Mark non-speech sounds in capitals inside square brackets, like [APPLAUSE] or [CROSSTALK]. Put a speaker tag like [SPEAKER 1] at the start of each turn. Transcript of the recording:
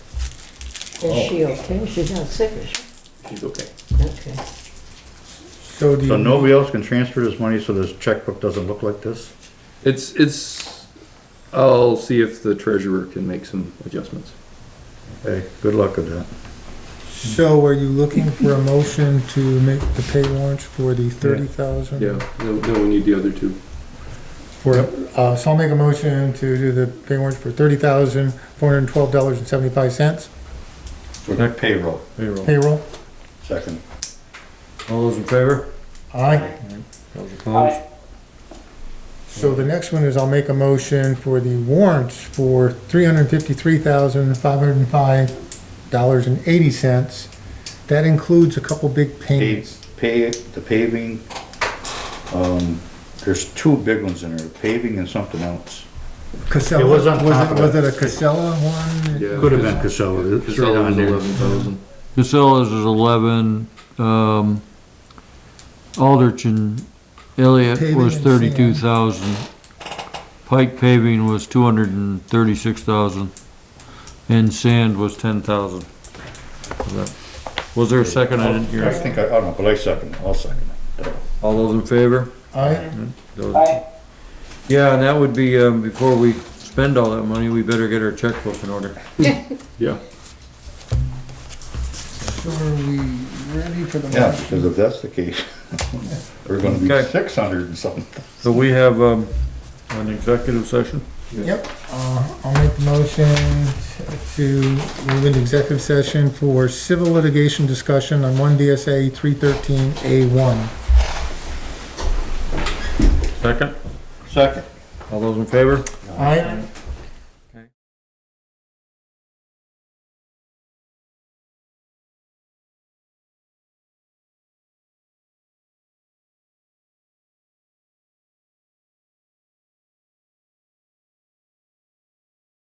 [SPEAKER 1] Is she okay? She's not sick, is she?
[SPEAKER 2] She's okay.
[SPEAKER 1] Okay.
[SPEAKER 3] So do
[SPEAKER 4] So
[SPEAKER 3] you,
[SPEAKER 4] nobody else can transfer this money so this checkbook doesn't look like this?
[SPEAKER 2] It's, it's, I'll see if the treasurer can make some adjustments.
[SPEAKER 4] Hey, good luck with that.
[SPEAKER 3] so are you looking for a motion to make the pay warrants for the thirty thousand?
[SPEAKER 2] Yeah, no, no, we need the other two.
[SPEAKER 3] For, uh, so I'll make a motion to do the pay warrants for thirty thousand, four hundred and twelve dollars and seventy-five cents
[SPEAKER 4] For the payroll. Payroll.
[SPEAKER 3] payroll.
[SPEAKER 4] Second.
[SPEAKER 5] All those in favor?
[SPEAKER 3] Aye.
[SPEAKER 5] Those opposed?
[SPEAKER 3] So the next one is I'll make a motion for the warrants for three hundred and fifty-three thousand, five hundred and five dollars and eighty cents. That includes a couple big
[SPEAKER 4] Pay,
[SPEAKER 3] payments.
[SPEAKER 4] pay, the paving, um, there's two big ones in there, paving and something else.
[SPEAKER 3] Casella,
[SPEAKER 4] It
[SPEAKER 3] was
[SPEAKER 4] was on
[SPEAKER 3] it,
[SPEAKER 4] top of
[SPEAKER 3] was
[SPEAKER 4] it.
[SPEAKER 3] it a Casella one?
[SPEAKER 2] Yeah.
[SPEAKER 4] Could have been Casella. It's right
[SPEAKER 2] Casella's
[SPEAKER 4] on there.
[SPEAKER 2] eleven thousand.
[SPEAKER 5] Casella's is eleven, um, Aldrich and Elliott
[SPEAKER 3] Paving and
[SPEAKER 5] was
[SPEAKER 3] sand.
[SPEAKER 5] thirty-two thousand. Pike paving was two hundred and thirty-six thousand, and sand was ten thousand. Was there a second? I didn't
[SPEAKER 4] I
[SPEAKER 5] hear.
[SPEAKER 4] think, I, I don't know, but I second, I'll second it.
[SPEAKER 5] All those in favor?
[SPEAKER 3] Aye,
[SPEAKER 5] Those- Yeah, and that would be, um, before we spend all that money, we better get our checkbook in order.
[SPEAKER 2] Yeah,
[SPEAKER 3] so are we ready for the
[SPEAKER 4] Yeah,
[SPEAKER 3] motion?
[SPEAKER 4] because if that's the case, [LAUGHS] we're gonna be
[SPEAKER 5] Okay.
[SPEAKER 4] six hundred and something.
[SPEAKER 5] So we have, um, an executive session?
[SPEAKER 3] Yep, uh, I'll make the motion to move into executive session for civil litigation discussion on one VSA three thirteen A one.
[SPEAKER 5] Second.
[SPEAKER 4] Second.
[SPEAKER 5] All those in favor?
[SPEAKER 3] Aye,